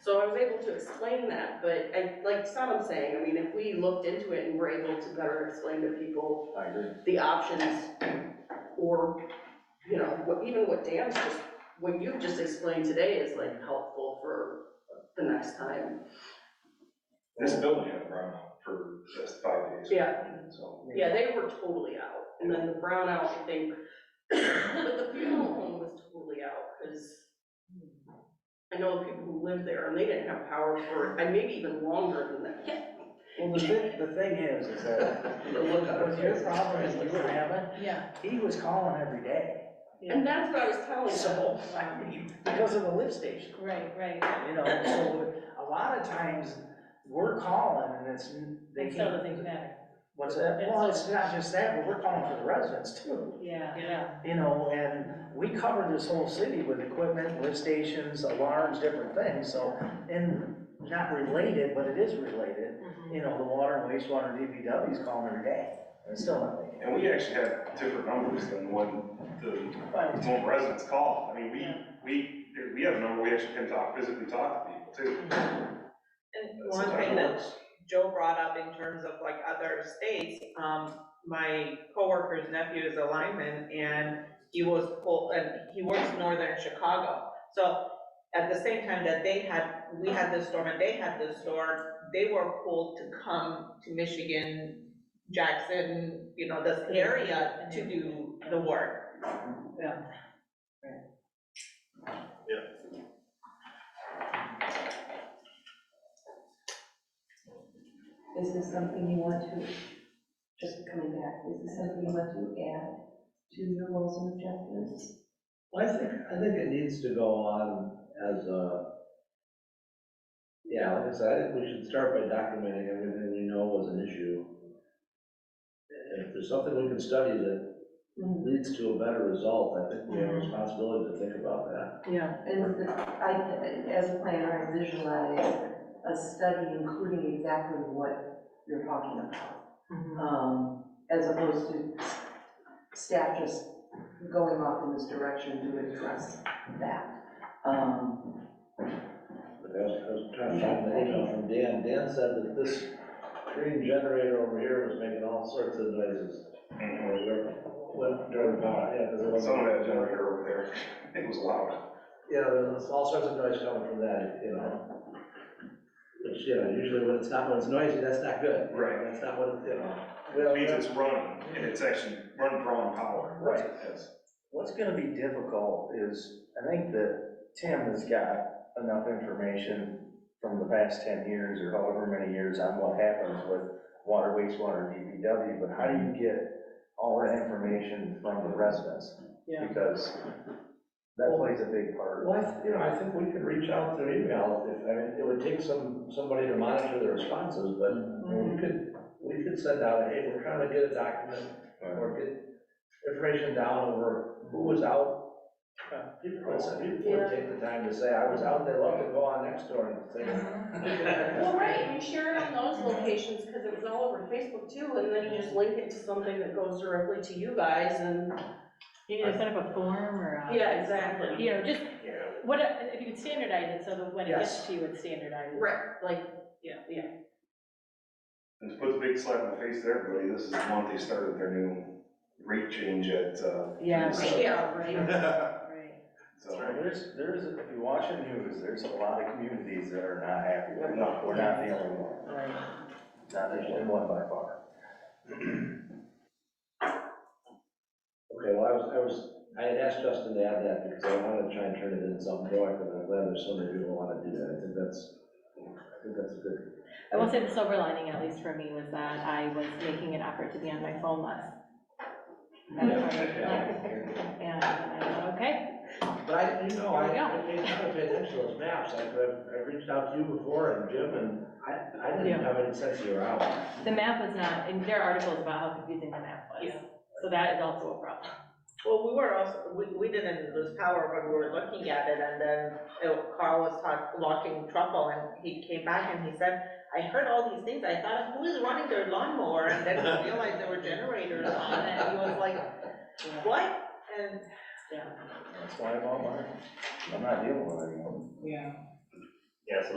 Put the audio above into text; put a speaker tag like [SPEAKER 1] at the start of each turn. [SPEAKER 1] So I was able to explain that, but I, like Sodom saying, I mean, if we looked into it and were able to better explain to people
[SPEAKER 2] I agree.
[SPEAKER 1] the options or, you know, what, even what Dan's just, what you've just explained today is like helpful for the next time.
[SPEAKER 3] This building had a brownout for just five days.
[SPEAKER 1] Yeah.
[SPEAKER 3] So.
[SPEAKER 1] Yeah, they were totally out, and then the brownout, I think, but the funeral home was totally out, because I know the people who lived there, and they didn't have power for, and maybe even longer than that.
[SPEAKER 4] Well, the thing, the thing is, is that, what your problem is you were having,
[SPEAKER 5] Yeah.
[SPEAKER 4] he was calling every day
[SPEAKER 1] And that's what I was telling them.
[SPEAKER 4] So, I mean, because of the lift station,
[SPEAKER 5] Right, right.
[SPEAKER 4] you know, so a lot of times, we're calling and it's, they
[SPEAKER 5] And
[SPEAKER 4] can't.
[SPEAKER 5] still doesn't matter.
[SPEAKER 4] What's that? Well, it's not just that, but we're calling for the residents too.
[SPEAKER 5] Yeah, yeah.
[SPEAKER 4] You know, and we cover this whole city with equipment, lift stations, alarms, different things, so, and not related, but it is related. You know, the water and wastewater DPW is calling every day, and it's still not making.
[SPEAKER 3] And we actually had different numbers than what the,
[SPEAKER 4] it.
[SPEAKER 3] what residents call. I mean, we, we, we have a number, we actually can talk, physically talk to people too.
[SPEAKER 6] And
[SPEAKER 3] That's
[SPEAKER 6] one
[SPEAKER 3] sometimes
[SPEAKER 6] thing that
[SPEAKER 3] works.
[SPEAKER 6] Joe brought up in terms of like other states, um, my coworker's nephew is a lineman and he was pulled, and he works northern Chicago. So at the same time that they had, we had this storm and they had this storm, they were pulled to come to Michigan, Jackson, you know, this area to do the work.
[SPEAKER 7] Is this something you want to, just coming back, is this something you want to add to your goals and objectives?
[SPEAKER 8] Well, I think, I think it needs to go on as a, yeah, like I said, I think we should start by documenting everything we know was an issue. If there's something we can study that leads to a better result, I think we have a responsibility to think about that.
[SPEAKER 7] Yeah. And the- I, as a planner, I visualize a study including exactly what you're talking about. um, As opposed to staff just going off in this direction to address that. Um,
[SPEAKER 8] Like I was, I was trying to find the email from Dan, Dan said that this green generator over here was making all sorts of noises.
[SPEAKER 3] Mhm.
[SPEAKER 8] What, during the, power- yeah, because it wasn't.
[SPEAKER 3] Some of that generator over there, it was loud.
[SPEAKER 8] Yeah, there's all sorts of noise coming from that, you know. Which, you know, usually when it's not, when it's noisy, that's not good. you know,
[SPEAKER 3] Right.
[SPEAKER 8] That's not what, it- you know.
[SPEAKER 3] It means it's running and it's actually running prone power.
[SPEAKER 4] Right.
[SPEAKER 3] Yes.
[SPEAKER 4] What's gonna be difficult is, I think that Tim has got enough information from the past ten years or however many years on what happens with water, wastewater, DPW, but how do you get all that information from the residents?
[SPEAKER 5] Yeah.
[SPEAKER 4] Because that plays a big part.
[SPEAKER 8] Well, I, th- you know, I think we could reach out through email if, I mean, it would take some, somebody to monitor the responses, but we could, we could send out, hey, we're trying to get a document or get information down over who was out. People would say- people would take the time to say, I was out, they love to go on next door and say.
[SPEAKER 1] Well, right, and you share it on those locations, because it was all over Facebook too, and then you just link it to something that goes directly to you guys, and,
[SPEAKER 5] Maybe they set up a form or a.
[SPEAKER 1] yeah, exactly.
[SPEAKER 5] You know, just,
[SPEAKER 3] Yeah.
[SPEAKER 5] what, if you could standardize it so that when it gets
[SPEAKER 4] Yes.
[SPEAKER 5] to you, it's standardized.
[SPEAKER 1] Right, like,
[SPEAKER 3] And to put the big slap in the face to everybody, this is the month they started their new rate change at, uh.
[SPEAKER 5] Yeah.
[SPEAKER 3] so-
[SPEAKER 1] yeah, right.
[SPEAKER 5] Right.
[SPEAKER 3] So,
[SPEAKER 4] Well, There's, there's, if you watch the news, there's a lot of communities that are not happy with it.
[SPEAKER 3] No.
[SPEAKER 4] We're not the only one,
[SPEAKER 5] Right.
[SPEAKER 4] not the only one by far.
[SPEAKER 8] Okay, well, I was, I was, I had asked Justin to add that because I wanted to try and turn it into something proactive, and I'm glad there's so many people who wanna do that, I think that's, I think that's a good.
[SPEAKER 5] I will say the silver lining, at least for me, was that I was making an effort to be on my phone less. That's hard. And I thought, okay,
[SPEAKER 8] But I, you know, I,
[SPEAKER 5] There
[SPEAKER 8] I paid, I paid attention to those maps, I, I've, I've reached out to you before and Jim, and I, I
[SPEAKER 5] Yeah.
[SPEAKER 8] didn't have any sense you were out.
[SPEAKER 5] the map was not, and there are articles about how confusing the map was.
[SPEAKER 6] Yeah.
[SPEAKER 5] So that is also a problem.
[SPEAKER 6] Well, we were also, we, we didn't lose power, but we were looking at it, and then uh, Carl was talk, walking truffle, and he came back and he said, I heard all these things, I thought, who is running their lawnmower, and then I realized there were generators on, and he was like, what? And
[SPEAKER 4] That's why I'm on mine. I'm not dealing with it anymore.
[SPEAKER 5] Yeah.
[SPEAKER 2] Yeah, so